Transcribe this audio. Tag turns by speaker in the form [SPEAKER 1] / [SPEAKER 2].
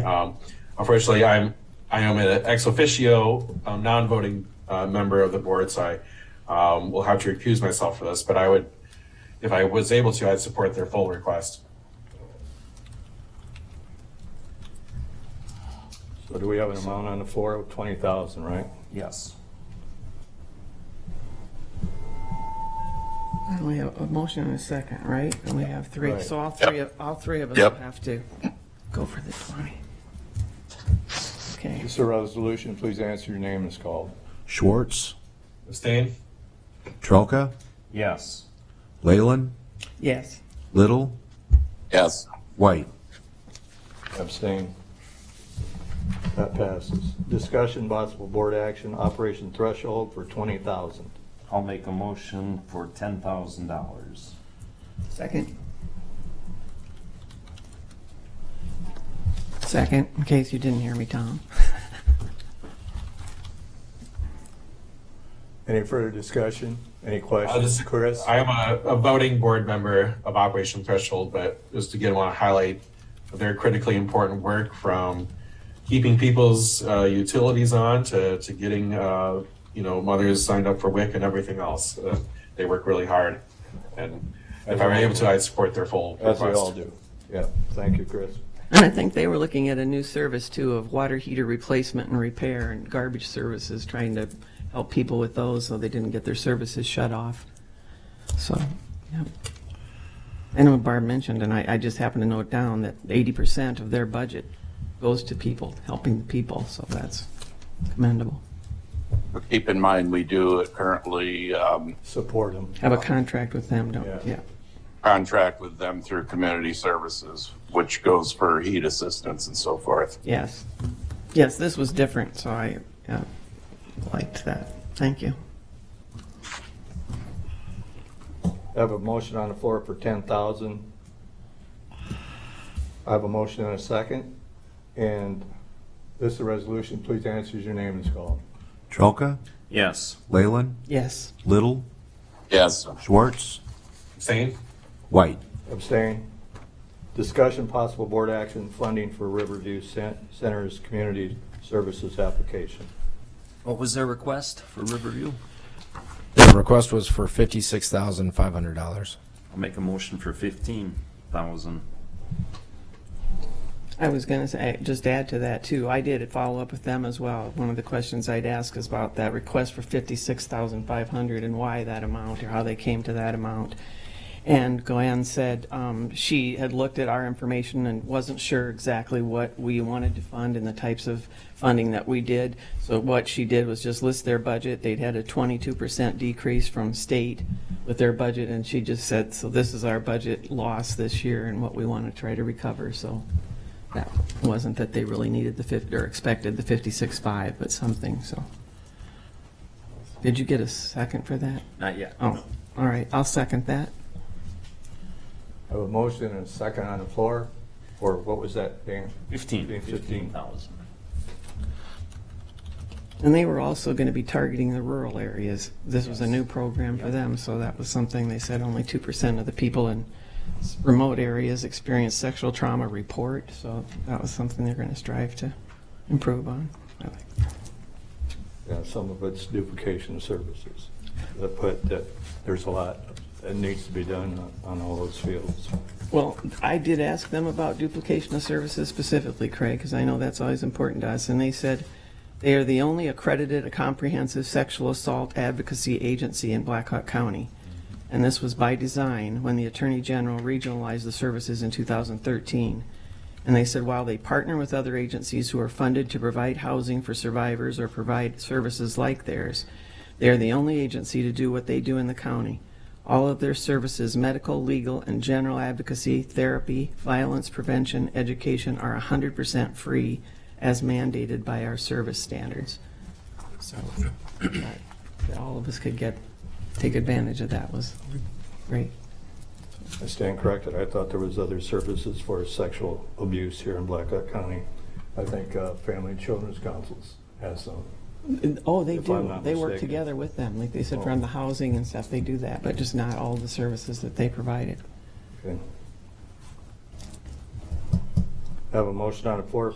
[SPEAKER 1] Um, Unfortunately, I'm, I am an ex officio, um, non-voting uh, member of the board, so I um, will have to recuse myself for this, but I would, if I was able to, I'd support their full request.
[SPEAKER 2] So do we have an amount on the floor of twenty thousand, right?
[SPEAKER 1] Yes.
[SPEAKER 3] And we have a motion and a second, right? And we have three,
[SPEAKER 2] Right.
[SPEAKER 3] so all three, of all three of us
[SPEAKER 4] Yep.
[SPEAKER 3] will have to go for the 20. Okay,
[SPEAKER 2] This is a resolution, please answer your name is called.
[SPEAKER 5] Schwartz,
[SPEAKER 1] Abstain?
[SPEAKER 5] Trelka,
[SPEAKER 2] Yes.
[SPEAKER 5] Leyland,
[SPEAKER 3] yes.
[SPEAKER 5] Little,
[SPEAKER 4] Yes.
[SPEAKER 5] White.
[SPEAKER 2] Abstain. That passes. Discussion possible board action, operation threshold for twenty thousand.
[SPEAKER 6] I'll make a motion for ten thousand dollars.
[SPEAKER 3] Second. Second, in case you didn't hear me, Tom.
[SPEAKER 2] Any further discussion? Any
[SPEAKER 1] Uh,
[SPEAKER 2] questions,
[SPEAKER 1] this-
[SPEAKER 2] Chris?
[SPEAKER 1] I am a, a voting board member of Operation Threshold, but just again, want to highlight their critically important work from keeping people's uh, utilities on to, to getting, uh, you know, mothers signed up for WIC and everything else. Uh, They work really hard. And if I were able to, I'd support their full
[SPEAKER 2] As we all
[SPEAKER 1] request.
[SPEAKER 2] do. Yeah, thank you, Chris.
[SPEAKER 3] And I think they were looking at a new service too of water heater replacement and repair and garbage services, trying to help people with those so they didn't get their services shut off. So, yeah. And what Barb mentioned, and I, I just happened to note down that eighty percent of their budget goes to people, helping the people, so that's commendable.
[SPEAKER 4] Keep in mind, we do currently um,
[SPEAKER 2] Support him.
[SPEAKER 3] Have a contract with them,
[SPEAKER 2] Yeah.
[SPEAKER 3] don't, yeah.
[SPEAKER 4] contract with them through community services, which goes for heat assistance and so forth.
[SPEAKER 3] Yes. Yes, this was different, so I uh, liked that. Thank you.
[SPEAKER 2] I have a motion on the floor for ten thousand. I have a motion and a second, and this is a resolution, please answer as your name is called.
[SPEAKER 5] Trelka,
[SPEAKER 6] Yes.
[SPEAKER 5] Leyland,
[SPEAKER 3] Yes.
[SPEAKER 5] Little,
[SPEAKER 4] Yes.
[SPEAKER 5] Schwartz,
[SPEAKER 1] Abstain?
[SPEAKER 5] White.
[SPEAKER 2] Abstain. Discussion possible board action funding for Riverview Cen- Center's community services application.
[SPEAKER 6] What was their request for Riverview?
[SPEAKER 7] The request was for fifty-six thousand five hundred dollars.
[SPEAKER 6] I'll make a motion for fifteen thousand.
[SPEAKER 3] I was going to say, just add to that too, I did follow up with them as well. One of the questions I'd ask is about that request for 56,500 and why that amount or how they came to that amount. And Glenn said um, she had looked at our information and wasn't sure exactly what we wanted to fund and the types of funding that we did. So what she did was just list their budget. They'd had a 22% decrease from state with their budget, and she just said, so this is our budget loss this year and what we want to try to recover, so that wasn't that they really needed the 50, or expected the 56.5, but something, so. Did you get a second for that?
[SPEAKER 6] Not yet.
[SPEAKER 3] Oh, all right, I'll second that.
[SPEAKER 2] I have a motion and a second on the floor, or what was that, Dan?
[SPEAKER 6] Fifteen.
[SPEAKER 2] Fifteen.
[SPEAKER 6] thousand.
[SPEAKER 3] And they were also going to be targeting the rural areas. This was a new program for them, so that was something, they said only 2% of the people in s- remote areas experience sexual trauma report, so that was something they're going to strive to improve on. I like
[SPEAKER 2] Yeah, some of it's duplication of services. That put, that, there's a lot that needs to be done on- on all those fields.
[SPEAKER 3] Well, I did ask them about duplication of services specifically, Craig, because I know that's always important to us, and they said they are the only accredited comprehensive sexual assault advocacy agency in Black Hawk County. And this was by design when the Attorney General regionalized the services in 2013. And they said while they partner with other agencies who are funded to provide housing for survivors or provide services like theirs, they are the only agency to do what they do in the county. All of their services, medical, legal, and general advocacy, therapy, violence prevention, education, are 100% free as mandated by our service standards. So that that all of us could get, take advantage of that was great.
[SPEAKER 2] I stand corrected. I thought there was other services for sexual abuse here in Blackhawk County. I think uh, Family and Children's Councils has some.
[SPEAKER 3] And- Oh, they
[SPEAKER 2] If I'm
[SPEAKER 3] do.
[SPEAKER 2] not
[SPEAKER 3] They work
[SPEAKER 2] mistaken. Oh.
[SPEAKER 3] together with them. Like they said, around the housing and stuff, they do that, but just not all the services that they provided.
[SPEAKER 2] Okay. Have a motion on the floor